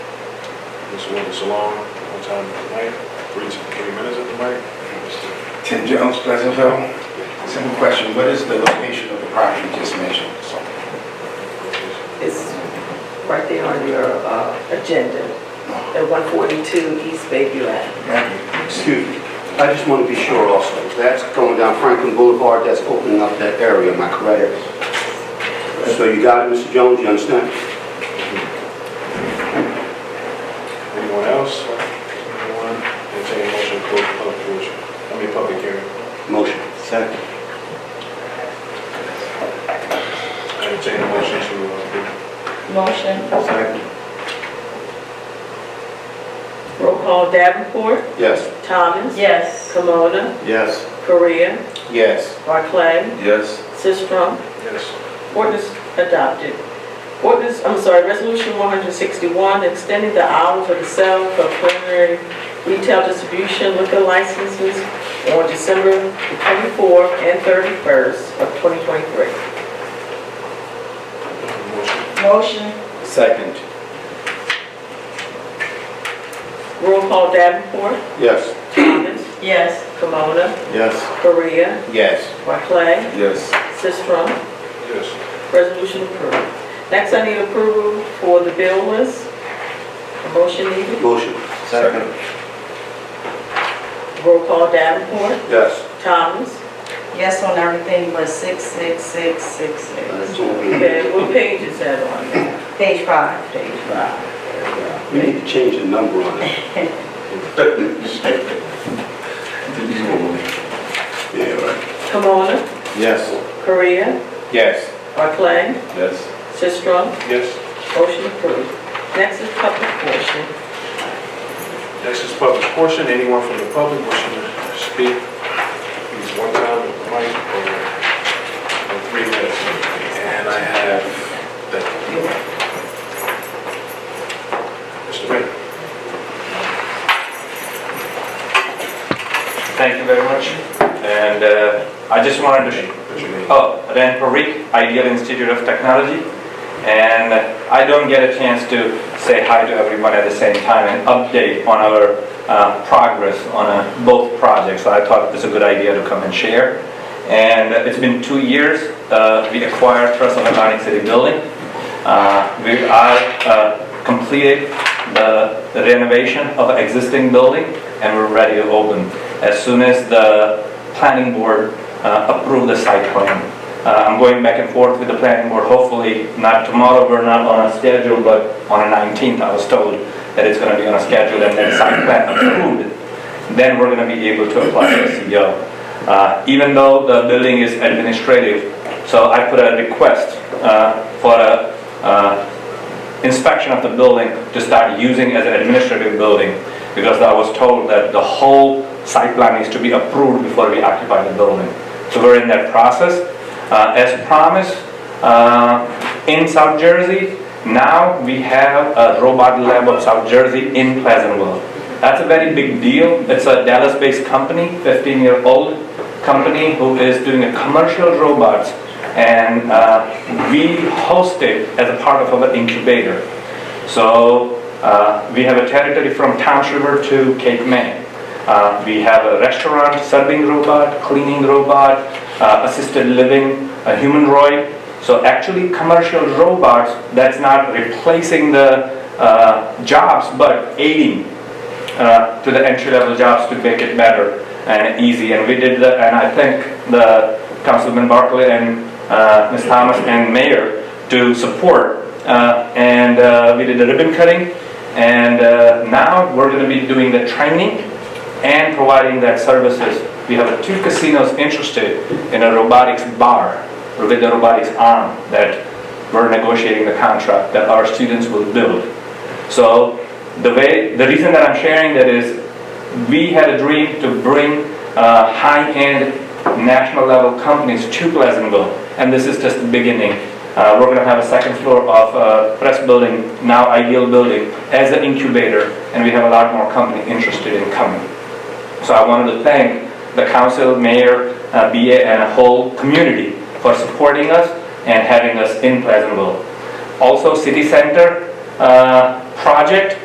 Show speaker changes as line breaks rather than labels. This one is long, one time at night, three to three minutes at the mic.
Tim Jones, Pleasantville. Simple question, what is the location of the property you just mentioned? So,
It's right there on your uh, agenda, at 142 East Bayview Ave.
thank you.
Excuse me, I just want to be sure also, that's going down Franklin Boulevard, that's opening up that area, am I correct? So you got it, Mr. Jones, you understand?
Anyone else? Anyone? Entertain a motion to close the public portion. I mean, public hearing.
Motion. Second.
Entertain a motion to, uh,
Motion.
Second.
Roll call Davenport,
Yes.
Thomas. Yes. Kimona,
Yes.
Korea,
Yes.
Barclay,
Yes.
Sistrum.
yes.
Ordinance adopted. Ordinance, I'm sorry, Resolution 161, extending the hours of the sale for preliminary retail distribution liquor licenses on December 24th and 31st of 2023.
Motion.
Motion.
Second.
Roll call Davenport,
Yes.
Thomas. Yes. Kimona,
Yes.
Korea,
Yes.
Barclay,
Yes.
Sistrum.
Yes.
Resolution approved. Next, I need approval for the bill list. A Motion needed.
Motion.
Second.
Roll call Davenport,
Yes.
Thomas.
Yes on everything but six, six, six, six, six.
That's all we need.
Okay, what page is that on?
Page five.
Page five.
We need to change the number on it. Yeah, right.
Kimona,
Yes.
Korea,
Yes.
Barclay,
Yes.
Sistrum,
Yes.
motion approved. Next is public portion.
Next is public portion. Anyone from the public wishing to speak, please one time at the mic or or three minutes. And I have, thank you. Mr. Mayor.
Thank you very much. And uh, I just wanted to,
What's your name?
oh, Ren Parikh, Ideal Institute of Technology. And I don't get a chance to say hi to everyone at the same time and update on our uh, progress on uh, both projects. So I thought it was a good idea to come and share. And it's been two years, uh, we acquired Trust of Atlantic City Building. Uh, We are uh, completed the renovation of existing building and we're ready to open as soon as the planning board uh, approve the site plan. Uh, I'm going back and forth with the planning board, hopefully not tomorrow, we're not on a schedule, but on the 19th, I was told that it's gonna be on a schedule and then site plan approved, then we're gonna be able to apply for CEO. Uh, Even though the building is administrative, so I put a request uh, for a uh, inspection of the building to start using as an administrative building, because I was told that the whole site plan needs to be approved before we occupy the building. So we're in that process. Uh, As promised, uh, in South Jersey, now we have a robot lab of South Jersey in Pleasantville. That's a very big deal. It's a Dallas-based company, 15-year-old company who is doing a commercial robots and uh, we host it as a part of our incubator. So uh, we have a territory from Towns River to Cape May. Uh, We have a restaurant, serving robot, cleaning robot, uh, assisted living, a humanoid. So actually, commercial robots, that's not replacing the uh, jobs, but aiding uh, to the entry-level jobs to make it better and easy. And we did, the- and I thank the Councilman Barkley and uh, Ms. Thomas and Mayor to support. Uh, And uh, we did the ribbon cutting, and uh, now we're going to be doing the training and providing that services. We have two casinos interested in a robotics bar with a robotics arm that we're negotiating the contract that our students will build. So the way, the reason that I'm sharing that is, we had a dream to bring uh, high-end national level companies to Pleasantville, and this is just the beginning. Uh, We're gonna have a second floor of uh, press building, now Ideal Building, as an incubator, and we have a lot more company interested in coming. So I wanted to thank the council, mayor, uh, BA, and a whole community for supporting us and having us in Pleasantville. Also, city center uh, project,